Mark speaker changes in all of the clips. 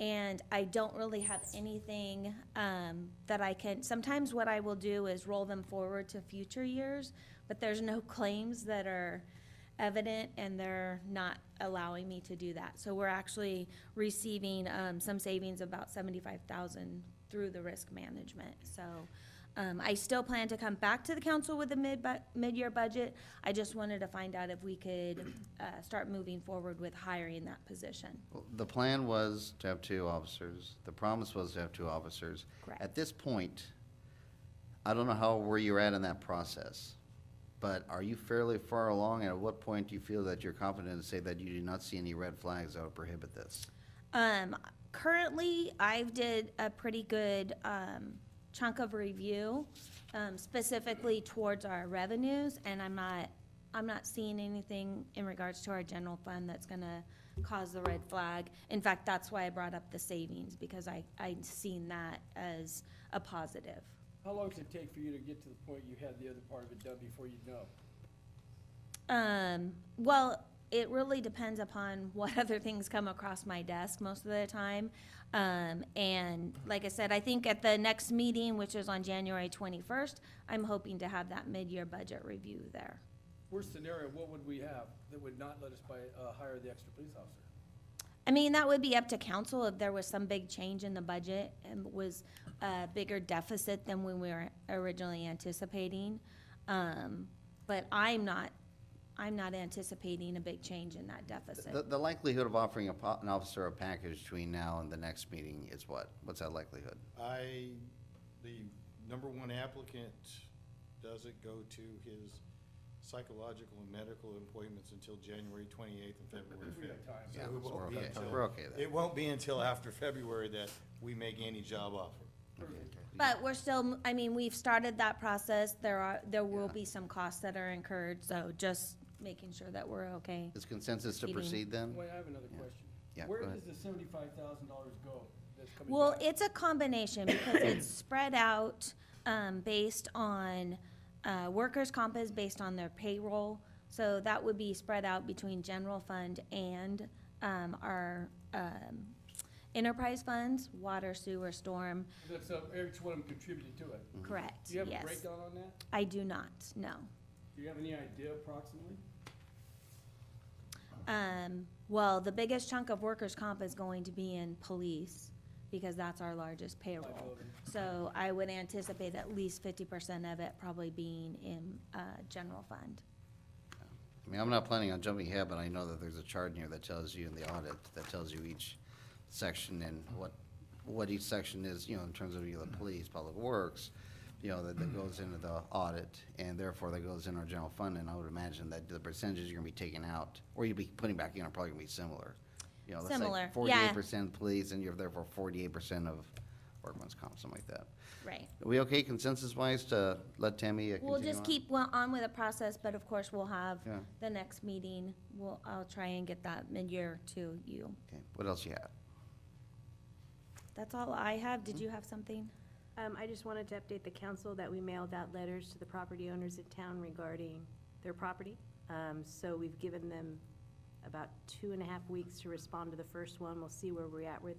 Speaker 1: And I don't really have anything um, that I can, sometimes what I will do is roll them forward to future years, but there's no claims that are evident and they're not allowing me to do that. So we're actually receiving um, some savings, about seventy-five thousand through the risk management. So um, I still plan to come back to the council with the mid, bu- mid-year budget. I just wanted to find out if we could uh, start moving forward with hiring that position.
Speaker 2: Well, The plan was to have two officers. The promise was to have two officers.
Speaker 1: Correct.
Speaker 2: At this point, I don't know how, where you're at in that process, but are you fairly far along? And at what point do you feel that you're confident to say that you do not see any red flags that would prohibit this?
Speaker 1: Um, currently, I've did a pretty good, um, chunk of review, um, specifically towards our revenues, and I'm not, I'm not seeing anything in regards to our general fund that's gonna cause the red flag. In fact, that's why I brought up the savings, because I, I'd seen that as a positive.
Speaker 3: How long does it take for you to get to the point you had the other part of it done before you know?
Speaker 1: Um, well, it really depends upon what other things come across my desk most of the time. Um, and like I said, I think at the next meeting, which is on January twenty-first, I'm hoping to have that mid-year budget review there.
Speaker 3: Worst scenario, what would we have that would not let us buy, uh, hire the extra police officer?
Speaker 1: I mean, that would be up to council if there was some big change in the budget and was a bigger deficit than when we were originally anticipating. Um, but I'm not, I'm not anticipating a big change in that deficit.
Speaker 2: The, the likelihood of offering a po- an officer a package between now and the next meeting is what? What's that likelihood?
Speaker 4: I, the number one applicant doesn't go to his psychological and medical appointments until January twenty-eighth and February
Speaker 3: We
Speaker 4: fifth.
Speaker 3: got time.
Speaker 2: Yeah,
Speaker 4: So it
Speaker 2: so
Speaker 4: won't
Speaker 2: we're
Speaker 4: be
Speaker 2: okay.
Speaker 4: until-
Speaker 2: We're okay then.
Speaker 4: It won't be until after February that we make any job offer.
Speaker 1: But we're still, I mean, we've started that process. There are, there will
Speaker 2: Yeah.
Speaker 1: be some costs that are incurred, so just making sure that we're okay.
Speaker 2: Is consensus to
Speaker 1: Meeting.
Speaker 2: proceed then?
Speaker 3: Wait, I have another question.
Speaker 2: Yeah,
Speaker 3: Where
Speaker 2: go ahead.
Speaker 3: does the seventy-five thousand dollars go that's coming
Speaker 1: Well,
Speaker 3: back?
Speaker 1: it's a combination because it's spread out, um, based on, uh, workers' comp is based on their payroll. So that would be spread out between general fund and, um, our, um, enterprise funds, water, sewer, storm.
Speaker 3: That's, uh, each one of them contributed to it.
Speaker 1: Correct,
Speaker 3: Do you have a
Speaker 1: yes.
Speaker 3: breakdown on that?
Speaker 1: I do not, no.
Speaker 3: Do you have any idea approximately?
Speaker 1: Um, well, the biggest chunk of workers' comp is going to be in police, because that's our largest payroll.
Speaker 3: Liability.
Speaker 1: So I would anticipate at least fifty percent of it probably being in, uh, general fund.
Speaker 2: I mean, I'm not planning on jumping ahead, but I know that there's a chart in here that tells you in the audit, that tells you each section and what, what each section is, you know, in terms of either
Speaker 1: Mm-hmm.
Speaker 2: police, public works, you know, that, that goes into the audit, and therefore that goes in our general fund, and I would imagine that the percentages you're gonna be taking out, or you'd be putting back in are probably gonna be similar. You know, let's
Speaker 1: Similar,
Speaker 2: say
Speaker 1: yeah.
Speaker 2: forty-eight percent police, and you're therefore forty-eight percent of workman's comp, something like that.
Speaker 1: Right.
Speaker 2: Are we okay consensus-wise to let Tammy uh, continue
Speaker 1: We'll just
Speaker 2: on?
Speaker 1: keep well on with the process, but of course, we'll have
Speaker 2: Yeah.
Speaker 1: the next meeting. We'll, I'll try and get that mid-year to you.
Speaker 2: Okay, what else you have?
Speaker 1: That's all I have. Did you have something?
Speaker 5: Um, I just wanted to update the council that we mailed out letters to the property owners in town regarding their property. Um, so we've given them about two and a half weeks to respond to the first one. We'll see where we're at with,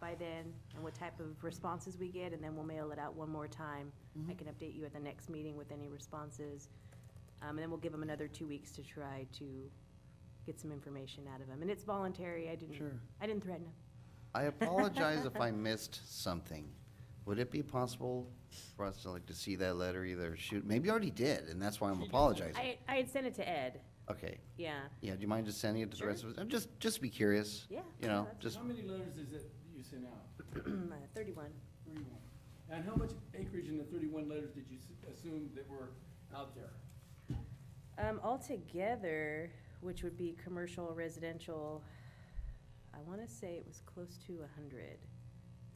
Speaker 5: by then, and what type of responses we get, and then we'll mail it out one more time. I can update you at the next meeting with any responses. Um, and then we'll give them another two weeks to try to get some information out of them. And it's voluntary. I didn't,
Speaker 3: Sure.
Speaker 5: I didn't threaten them.
Speaker 2: I apologize if I missed something. Would it be possible for us to like to see that letter either shoot, maybe you already did, and that's why I'm apologizing.
Speaker 5: I, I had sent it to Ed,
Speaker 2: Okay,
Speaker 5: yeah.
Speaker 2: yeah, do you mind just sending it to the rest of us? I'm just, just be curious.
Speaker 5: Yeah,
Speaker 2: You know,
Speaker 5: that's-
Speaker 2: just,
Speaker 3: How many letters is it that you sent out?
Speaker 5: Uh, Thirty-one.
Speaker 3: Thirty-one. And how much acreage in the thirty-one letters did you s- assume that were out there?
Speaker 5: Um, altogether, which would be commercial, residential, I wanna say it was close to a hundred,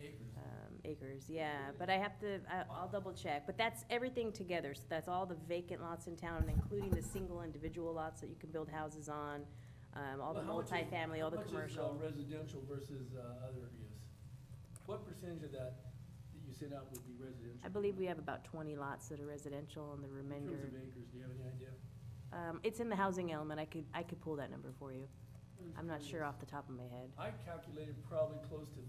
Speaker 3: Acres.
Speaker 5: um, acres, yeah, but I have to, I, I'll double check, but that's everything together, so that's all the vacant lots in town, including the single individual lots that you can build houses on, um, all the
Speaker 3: Well, how much is-
Speaker 5: multifamily, all the
Speaker 3: how much is, uh,
Speaker 5: commercial.
Speaker 3: residential versus uh, other use? What percentage of that that you sent out would be residential?
Speaker 5: I believe we have about twenty lots that are residential and the
Speaker 3: In terms
Speaker 5: remainder,
Speaker 3: of acres, do you have any idea?
Speaker 5: um, it's in the housing element, I could, I could pull that number for you, I'm not sure off the top of my head.
Speaker 3: I calculated probably close to